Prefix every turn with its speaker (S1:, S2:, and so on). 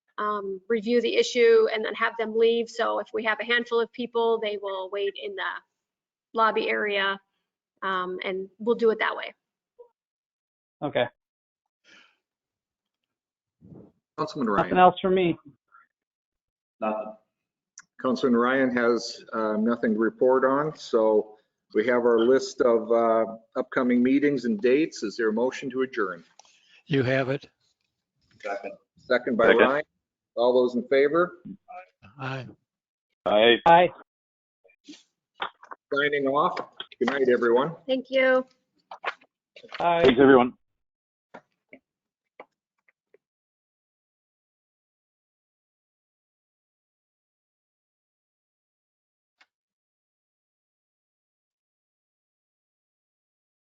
S1: um, review the issue and then have them leave. So if we have a handful of people, they will wait in the lobby area um, and we'll do it that way.
S2: Okay,
S3: Councilman
S2: nothing
S3: Ryan.
S2: else for me.
S4: Nothing.
S3: Councilman Ryan has uh, nothing to report on, so we have our list of uh, upcoming meetings and dates. Is there a motion to adjourn?
S5: You have it.
S4: Second.
S3: Second by
S4: Second.
S3: Ryan. All those in favor,
S5: Aye.
S4: Aye.
S2: Bye.
S3: signing off. Good night, everyone.
S1: Thank you.
S2: Bye.
S4: Thanks, everyone.